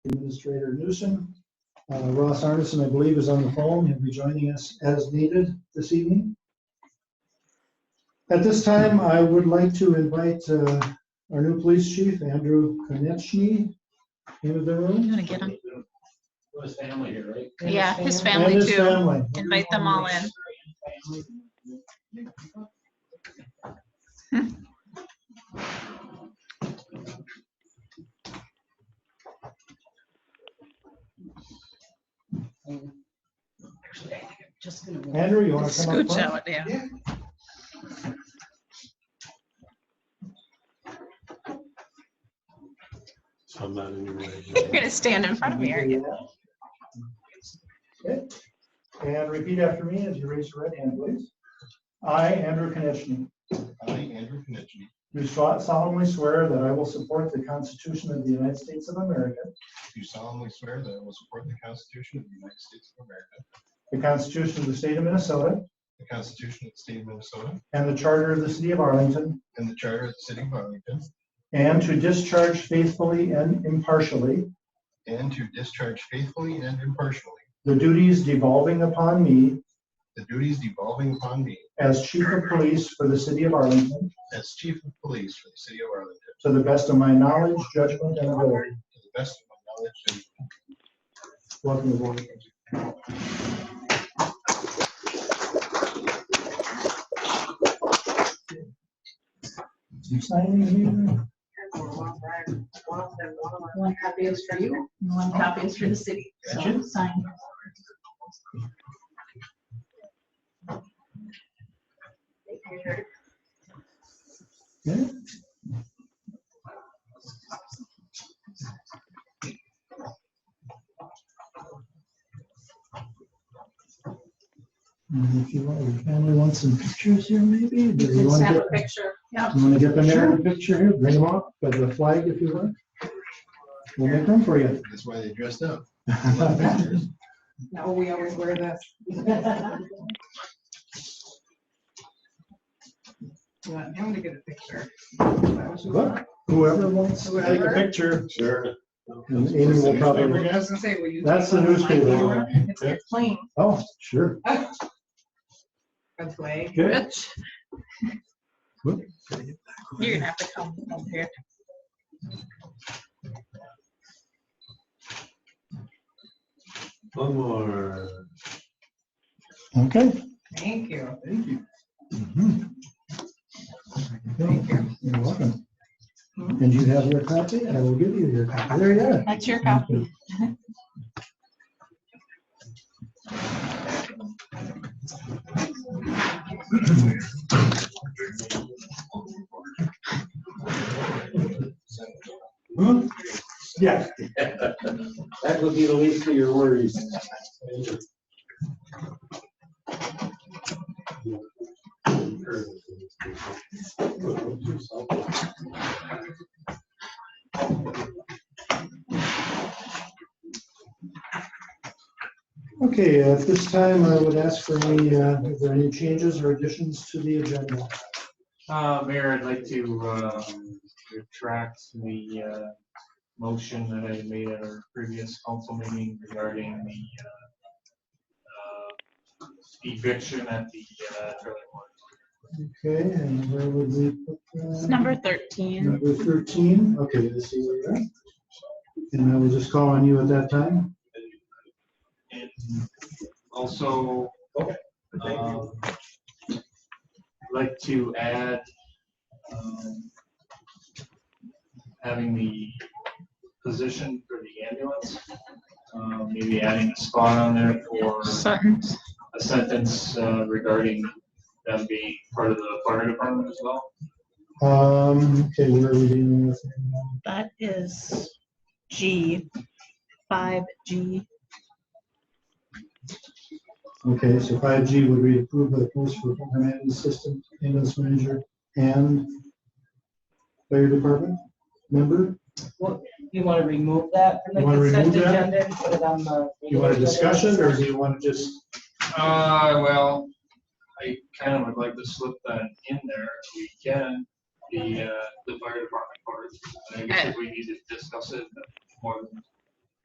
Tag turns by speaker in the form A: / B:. A: Administrator Newsom. Uh, Ross Arneson, I believe, is on the phone. He'll be joining us as needed this evening. At this time, I would like to invite uh, our new police chief, Andrew Konechny, into the room.
B: You want to get on?
C: With his family here, right?
B: Yeah, his
A: And
B: family
A: his
B: too.
A: family.
B: Invite them all in.
D: Just gonna.
A: Andrew, you want to come up?
B: Scooch
A: front?
B: out, yeah.
E: So I'm not in your way.
B: You're gonna stand in front of me, aren't you?
A: Okay. And repeat after me as you raise your right hand, please. I, Andrew Konechny,
F: I, Andrew Knichby,
A: do solemnly swear that I will support the Constitution of the United States of America,
F: do solemnly swear that I will support the Constitution of the United States of America,
A: the Constitution of the State of Minnesota,
F: the Constitution of the State of Minnesota,
A: and the Charter of the City of Arlington,
F: and the Charter of the City of Arlington,
A: and to discharge faithfully and impartially
F: and to discharge faithfully and impartially
A: the duties devolving upon me
F: the duties devolving upon me
A: as Chief of Police for the City of Arlington
F: as Chief of Police for the City of Arlington,
A: to the best of my knowledge, judgment, and ability.
F: to the best of my knowledge and
A: Welcome aboard. You sign these here?
D: One copy is for you, and one copy is for the city. So sign.
A: Yeah. And if you want, your family wants some pictures here maybe? Do
D: You
A: you
D: can
A: want
D: snap a
A: to get,
D: picture. Yeah.
A: you want to get them there in a picture here? Bring them up with a flag if you want. We'll make room for you.
F: that's why they dressed up.
D: No, we always wear this. You want him to get a picture?
A: Look, Whoever wants to take a
D: Whoever.
A: picture.
F: Sure.
A: And Amy will probably,
D: I was gonna say, will you?
A: That's the newspaper.
D: It's your plane,
A: oh, sure.
D: that's way.
A: Good.
B: You're gonna have to come up here.
E: One more.
A: Okay.
D: Thank you.
F: Thank you.
A: Mhm. You're welcome.
B: Hmm?
A: And you have your copy, I will give you your copy. There you are.
B: That's your copy.
A: Yeah.
C: That would be the least of your worries.
A: Okay, uh, at this time, I would ask for any, uh, if there are any changes or additions to the agenda.
C: Uh, Mayor, I'd like to, um, retract the, uh, motion that I made at our previous council meeting regarding the, uh, uh, eviction at the, uh, trailer park.
A: Okay, and where would we? put that?
B: It's number thirteen.
A: Number thirteen, okay, I see where you're at. And I will just call on you at that time.
C: And also, um, like to add, um, having the position for the ambulance, um, maybe adding a spot on there for
B: Sutton's.
C: a sentence uh, regarding them being part of the fire department as well.
A: Um, okay, where are we dealing with?
G: That is G, five G.
A: Okay, so five G would be approved by the Police for Program Management System, ambulance manager, and fire department member?
D: You wanna remove that
A: the You wanna consent remove that?
D: and put it on the.
A: Do you want a discussion, or do you want to just,
C: Uh, well, I kind of would like to slip that in there if we can, the, uh, the fire department part. I guess if we need to discuss it more than